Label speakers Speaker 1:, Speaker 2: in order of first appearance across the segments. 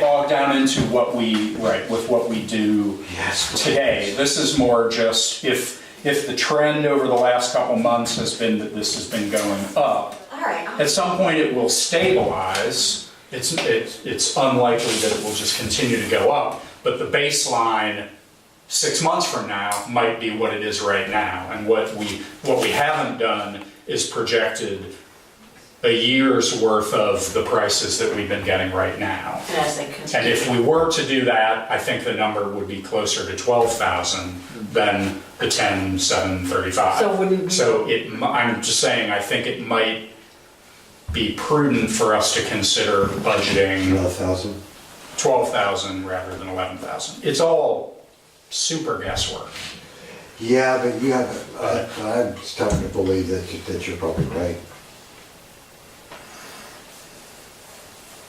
Speaker 1: down into what we, right, with what we do
Speaker 2: Yes.
Speaker 1: today. This is more just if, if the trend over the last couple months has been that this has been going up,
Speaker 3: All right, I'll-
Speaker 1: at some point it will stabilize. It's, it- it's unlikely that it will just continue to go up, but the baseline six months from now might be what it is right now. And what we, what we haven't done is projected a year's worth of the prices that we've been getting right now.
Speaker 3: and as they
Speaker 1: And
Speaker 3: continue.
Speaker 1: if we were to do that, I think the number would be closer to 12,000 than the 10,735.
Speaker 4: So wouldn't we-
Speaker 1: So it, m- I'm just saying, I think it might be prudent for us to consider budgeting
Speaker 2: Another thousand.
Speaker 1: 12,000 rather than 11,000. It's all super guesswork.
Speaker 2: Yeah, but you have, uh, I'm starting to believe that, you- that you're probably right.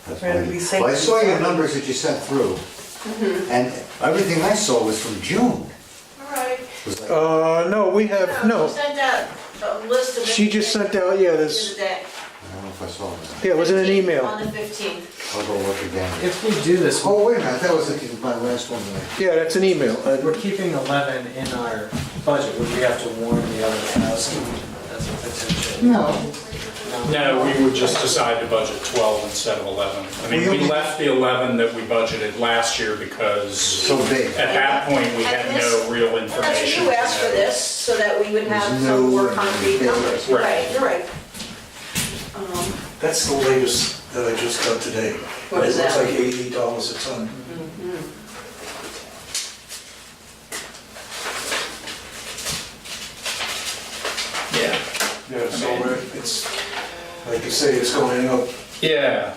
Speaker 2: That's
Speaker 4: Right,
Speaker 2: my-
Speaker 4: we say-
Speaker 2: Well, I saw your numbers that you sent through, and everything I saw was from June.
Speaker 3: All right.
Speaker 2: It was like,
Speaker 5: Uh, no, we have,
Speaker 3: She
Speaker 5: no,
Speaker 3: Sent out a list of.
Speaker 5: She just sent out, yeah, this-
Speaker 3: Today.
Speaker 2: I don't know if I saw that.
Speaker 5: yeah, it was in an
Speaker 3: On
Speaker 5: email.
Speaker 3: the fifteenth.
Speaker 2: I'll go look again.
Speaker 6: If we do this,
Speaker 2: Oh, wait a minute, that was the- my last one. that I-
Speaker 5: Yeah, that's an email.
Speaker 6: we're
Speaker 5: Uh,
Speaker 6: keeping 11 in our budget, would we have to warn the other thousand as a potential?
Speaker 2: No,
Speaker 1: No, we would just decide to budget 12 instead of 11. I mean, we
Speaker 2: We-
Speaker 1: left the 11 that we budgeted last year because.
Speaker 2: So big.
Speaker 1: At that point, we had
Speaker 3: And this-
Speaker 1: no real
Speaker 3: And
Speaker 1: information.
Speaker 3: that's what you
Speaker 1: to
Speaker 3: asked for
Speaker 1: know.
Speaker 3: this, so that we would have
Speaker 2: There's
Speaker 3: some more
Speaker 2: no-
Speaker 3: concrete numbers.
Speaker 1: Right.
Speaker 3: Right, you're right. Um,
Speaker 7: That's the latest that I just got today.
Speaker 3: What is that?
Speaker 7: It looks like eighty dollars a ton.
Speaker 1: Yeah.
Speaker 7: Yeah, so we're- it's, like you say, it's going up.
Speaker 1: Yeah.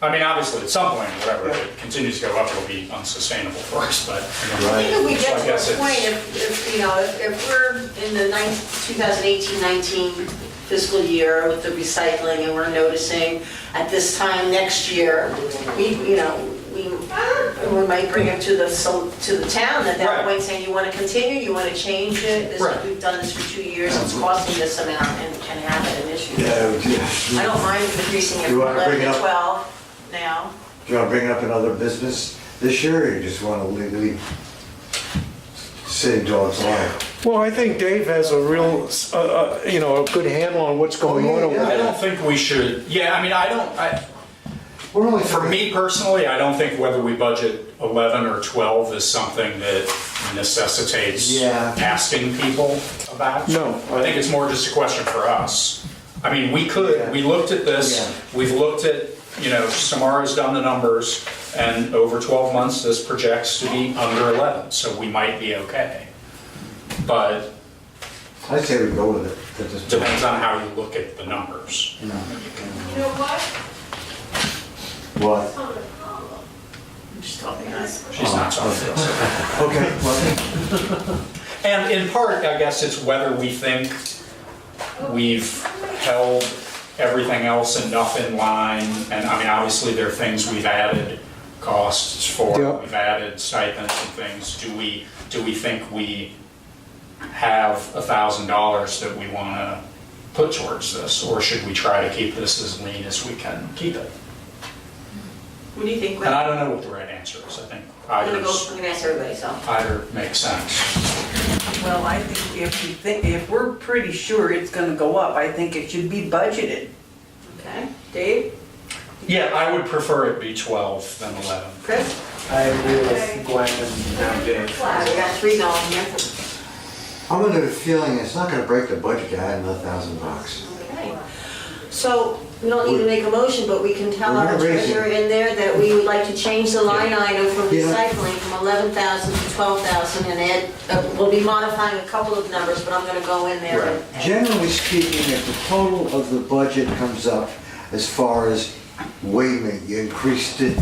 Speaker 1: I mean, obviously, at some point, whatever, if it continues to go up, it'll be unsustainable for us, but. you know,
Speaker 3: I think if we get
Speaker 1: so I
Speaker 3: to
Speaker 1: guess
Speaker 3: a
Speaker 1: it's-
Speaker 3: point, if, if, you know, if if we're in the 2018-19 fiscal year with the recycling and we're noticing at this time next year, we, you know, we, we might bring it to the, so- to the town at
Speaker 1: Right.
Speaker 3: that point saying, you want to continue, you want to change it? This,
Speaker 1: Right.
Speaker 3: we've done this for two years, it's costing this amount and can have it an issue.
Speaker 2: yeah, we did.
Speaker 3: I don't mind increasing it
Speaker 2: You
Speaker 3: from
Speaker 2: wanna bring
Speaker 3: 11
Speaker 2: it
Speaker 3: to
Speaker 2: up?
Speaker 3: 12 now.
Speaker 2: Do you want to bring up another business this year, or you just want to leave, leave city dogs alone?
Speaker 5: Well, I think Dave has a real, uh, uh, you know, a good handle on what's going on. over
Speaker 1: I
Speaker 5: there.
Speaker 1: don't think we should, yeah, I mean, I don't, I,
Speaker 2: We're only
Speaker 1: for me personally, I don't think whether we budget 11 or 12 is something that necessitates
Speaker 2: Yeah.
Speaker 1: asking people about.
Speaker 5: No.
Speaker 1: I think it's more just a question for us. I mean, we
Speaker 2: Yeah.
Speaker 1: could, we looked at
Speaker 2: Yeah.
Speaker 1: this, we've looked at, you know, Samara's done the numbers, and over 12 months, this projects to be under 11, so we might be okay. But
Speaker 2: I say we go with it. at this point.
Speaker 1: depends on how you look at the numbers.
Speaker 3: You know what?
Speaker 2: What?
Speaker 3: Just tell me that.
Speaker 1: She's not talking to us.
Speaker 2: Okay, well,
Speaker 1: And in part, I guess it's whether we think we've held everything else enough in line. And I mean, obviously, there are things we've added costs for,
Speaker 5: Yep.
Speaker 1: we've added stipends and things. Do we, do we think we have a thousand dollars that we want to put towards this? Or should we try to keep this as lean as we can keep it?
Speaker 3: What do you think? Gwen?
Speaker 1: And I don't know what the right answer is. I think
Speaker 3: I'm gonna
Speaker 1: either,
Speaker 3: go, I'm gonna ask everybody, so.
Speaker 1: either makes sense.
Speaker 4: Well, I think if you think, if we're pretty sure it's gonna go up, I think it should be budgeted.
Speaker 3: Okay, Dave,
Speaker 1: Yeah, I would prefer it be 12 than 11.
Speaker 3: Chris?
Speaker 6: I agree with Gwen and now Dave.
Speaker 3: Wow, we got three going here.
Speaker 2: I'm under the feeling it's not gonna break the budget to add another thousand bucks.
Speaker 3: Okay. So, we don't need to make a motion, but we can tell
Speaker 2: We're
Speaker 3: our
Speaker 2: not raising.
Speaker 3: treasurer in there that we would like to change the line item from
Speaker 2: Yeah.
Speaker 3: recycling from 11,000 to 12,000 and add, uh, we'll be modifying a couple of numbers, but I'm gonna go in there and.
Speaker 2: Generally speaking, if the total of the budget comes up as far as, wait a minute, you increased it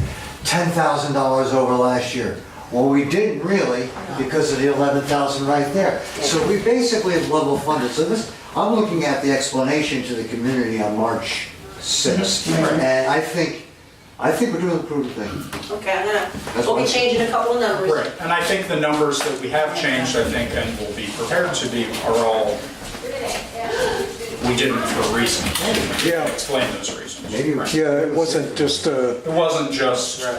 Speaker 2: ten thousand dollars over last year. Well, we didn't really because of the eleven thousand right there. So we basically have level funded. So this, I'm looking at the explanation to the community on March sixth. And I think, I think we're doing the prudent thing.
Speaker 3: Okay, I'm gonna,
Speaker 2: That's
Speaker 3: we'll be
Speaker 2: fine.
Speaker 3: changing a couple of numbers.
Speaker 1: Right, and I think the numbers that we have changed, I think, and will be prepared to be, are all, we didn't for reasons.
Speaker 5: Yeah.
Speaker 1: Explain those reasons.
Speaker 2: Maybe we
Speaker 1: Right.
Speaker 5: Yeah, it wasn't just, uh,
Speaker 1: It wasn't just